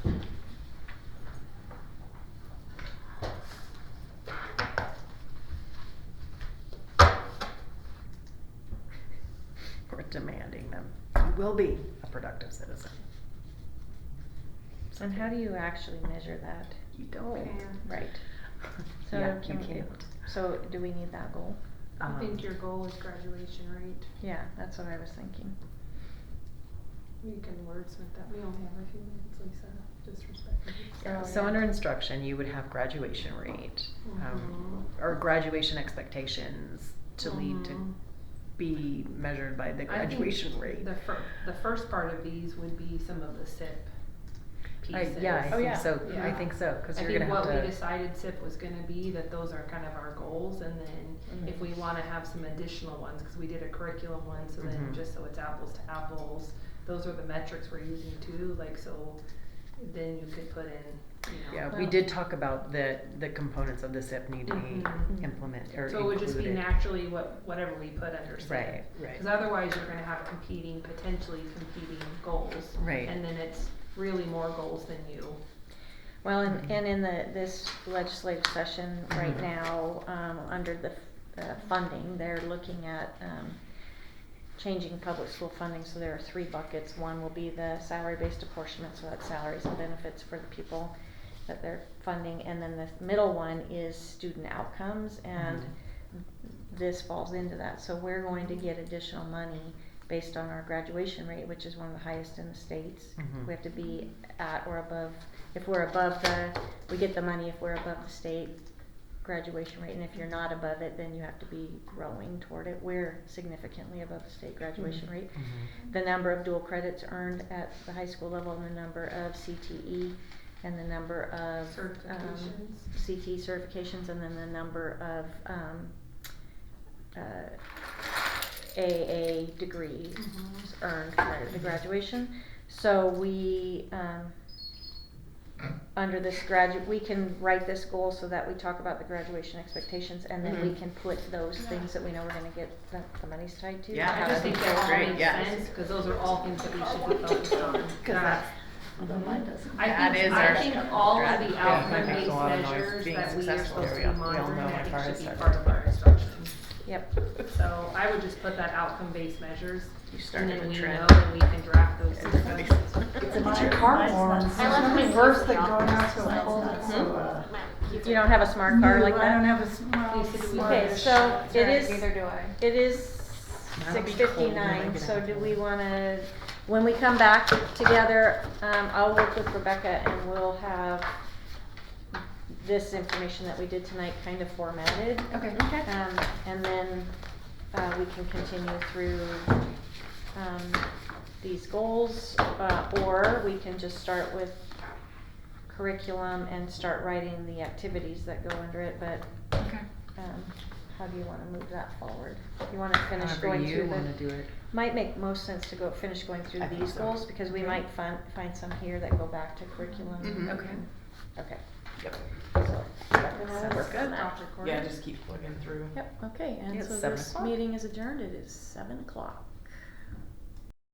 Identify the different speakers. Speaker 1: will be a productive citizen.
Speaker 2: And how do you actually measure that?
Speaker 1: You don't.
Speaker 2: Right. So
Speaker 1: Yeah, you
Speaker 2: can we-
Speaker 1: can't.
Speaker 2: So do we need that goal?
Speaker 3: I think
Speaker 1: Um,
Speaker 3: your goal is graduation rate.
Speaker 2: Yeah, that's what I was thinking.
Speaker 3: We can wordsmith that. We only have a few minutes, Lisa. Just respect it.
Speaker 1: Yeah,
Speaker 2: So,
Speaker 1: so
Speaker 2: yeah.
Speaker 1: under instruction, you would have graduation rate, um,
Speaker 4: Mm-hmm.
Speaker 1: or graduation expectations to lead to
Speaker 3: Mhm.
Speaker 1: be measured by the
Speaker 4: I think
Speaker 1: graduation rate.
Speaker 4: The fir- the first part of these would be some of the SIP
Speaker 1: I-
Speaker 4: pieces.
Speaker 1: yeah, I
Speaker 2: Oh,
Speaker 1: think
Speaker 2: yeah.
Speaker 1: so. I
Speaker 4: Yeah.
Speaker 1: think so because
Speaker 4: I
Speaker 1: you're
Speaker 4: think
Speaker 1: gonna have
Speaker 4: what
Speaker 1: to.
Speaker 4: we decided SIP was gonna be, that those are kind of our goals, and then if
Speaker 1: Mhm.
Speaker 4: we wanna have some additional ones, cause we did a curriculum one, so
Speaker 1: Mhm.
Speaker 4: then, just so it's apples to apples, those are the metrics we're using too, like, so then you could put in, you know.
Speaker 1: yeah, we
Speaker 2: Well-
Speaker 1: did talk about the the components of the SIP need to be
Speaker 4: Mhm.
Speaker 1: implemented or
Speaker 4: So it would just be
Speaker 1: included.
Speaker 4: naturally what, whatever we put under SIP.
Speaker 1: Right, right.
Speaker 4: Cause otherwise, you're gonna have competing, potentially competing goals.
Speaker 1: Right.
Speaker 4: And then it's really more goals than you.
Speaker 2: Well, and,
Speaker 1: Mhm.
Speaker 2: and in the, this legislative session right
Speaker 1: Mhm.
Speaker 2: now, um, under the, uh, funding, they're looking at, um, changing public school funding, so there are three buckets. One will be the salary-based apportionment, so that's salaries and benefits for the people that they're funding. And then the middle one is student outcomes, and this falls into that. So we're going to get additional money based on our graduation rate, which is one of the highest in the states.
Speaker 1: Mhm.
Speaker 2: We have to be at or above, if we're above the, we get the money if we're above the state graduation rate, and if you're not above it, then you have to be growing toward it. We're significantly above the state graduation rate.
Speaker 1: Mhm.
Speaker 2: The number of dual credits earned at the high school level, and the number of CTE, and the number of. um,
Speaker 4: Certifications.
Speaker 2: CTE certifications, and then the number of, um, uh, AA degrees
Speaker 4: Mhm.
Speaker 2: earned prior to graduation. So we, um, under this graduate, we can write this goal so that we talk about the graduation expectations and then we
Speaker 1: Mhm.
Speaker 2: can put those
Speaker 4: Yeah.
Speaker 2: things that we know we're gonna get, that the money's tied to.
Speaker 1: Yeah,
Speaker 4: I just think
Speaker 1: that's
Speaker 4: that all
Speaker 1: great,
Speaker 4: makes
Speaker 1: yes.
Speaker 4: sense, cause those are all things that we should be focused on.
Speaker 1: Because that's
Speaker 4: Although mine doesn't.
Speaker 1: That
Speaker 4: I think,
Speaker 1: is
Speaker 4: I
Speaker 1: our-
Speaker 4: think all of the
Speaker 1: Yeah, that makes
Speaker 4: outcome-based
Speaker 1: a lot of noise.
Speaker 4: measures
Speaker 1: Being
Speaker 4: that we are
Speaker 1: successful,
Speaker 4: supposed to
Speaker 1: there
Speaker 4: be
Speaker 1: we go. We all know
Speaker 4: monitoring,
Speaker 1: my car
Speaker 4: I think
Speaker 1: is
Speaker 4: should be
Speaker 1: stuck.
Speaker 4: part of our instruction.
Speaker 2: Yep,
Speaker 4: So I would just put that outcome-based measures,
Speaker 1: You
Speaker 4: and
Speaker 1: started
Speaker 4: then
Speaker 1: a
Speaker 4: we
Speaker 1: trend.
Speaker 4: know that we can draft those
Speaker 1: Everybody's-
Speaker 4: systems.
Speaker 5: It's a bunch of cardboard.
Speaker 6: I left my
Speaker 5: Reverse
Speaker 6: keys in
Speaker 5: that
Speaker 6: the
Speaker 5: going out
Speaker 6: office.
Speaker 5: to a hole. that's,
Speaker 1: Hmm?
Speaker 5: uh,
Speaker 2: you don't have a smart car like
Speaker 5: new.
Speaker 2: that?
Speaker 5: I don't have a small.
Speaker 4: Okay,
Speaker 2: Okay,
Speaker 5: smallish-
Speaker 2: so it is.
Speaker 6: Neither do I.
Speaker 2: It is
Speaker 1: That'll
Speaker 2: six
Speaker 1: be cold when I
Speaker 2: fifty-nine,
Speaker 1: get
Speaker 2: so
Speaker 1: out.
Speaker 2: do we wanna, when we come back together, um, I'll work with Rebecca and we'll have this information that we did tonight kind of formatted.
Speaker 6: Okay.
Speaker 2: Um, and then, uh, we can continue through, um, these goals, uh, or we can just start with curriculum and start writing the activities that go under it, but
Speaker 6: Okay.
Speaker 2: um, how do you wanna move that forward? You wanna finish
Speaker 1: However
Speaker 2: going
Speaker 1: you
Speaker 2: through
Speaker 1: wanna do
Speaker 2: the,
Speaker 1: it.
Speaker 2: might make most sense to go, finish going through
Speaker 1: I think
Speaker 2: these
Speaker 1: so.
Speaker 2: goals, because we
Speaker 1: Mhm.
Speaker 2: might find, find some here that go back to curriculum.
Speaker 1: Mhm.
Speaker 6: Okay.
Speaker 2: Okay.
Speaker 1: Yep.
Speaker 2: So,
Speaker 1: Sounds
Speaker 2: work on
Speaker 1: good.
Speaker 2: that.
Speaker 4: Dr. Corey?
Speaker 7: Yeah, just keep plugging through.
Speaker 2: Yep, okay, and
Speaker 1: It's
Speaker 2: so
Speaker 1: seven
Speaker 2: this
Speaker 1: o'clock.
Speaker 2: meeting is adjourned, it is seven o'clock.